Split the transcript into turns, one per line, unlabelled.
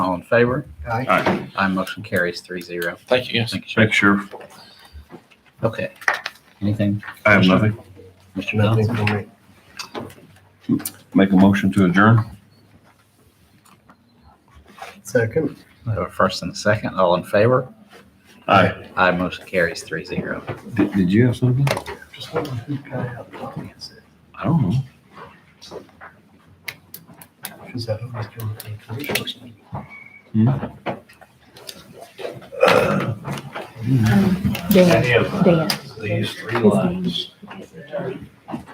All in favor?
Aye.
Aye.
Aye, motion carries three zero.
Thank you, yes.
Thank you, Sheriff.
Thanks, Sheriff.
Okay. Anything,
I have nothing.
Mr. Bell?
Nothing for me.
Make a motion to adjourn.
Second.
We have a first and a second. All in favor?
Aye.
Aye, motion carries three zero.
Did, did you have something?
Just wondering who got out the audience.
I don't know.
Is that who was doing the commissioners?
Dan,
Any of
Dan.
these three lines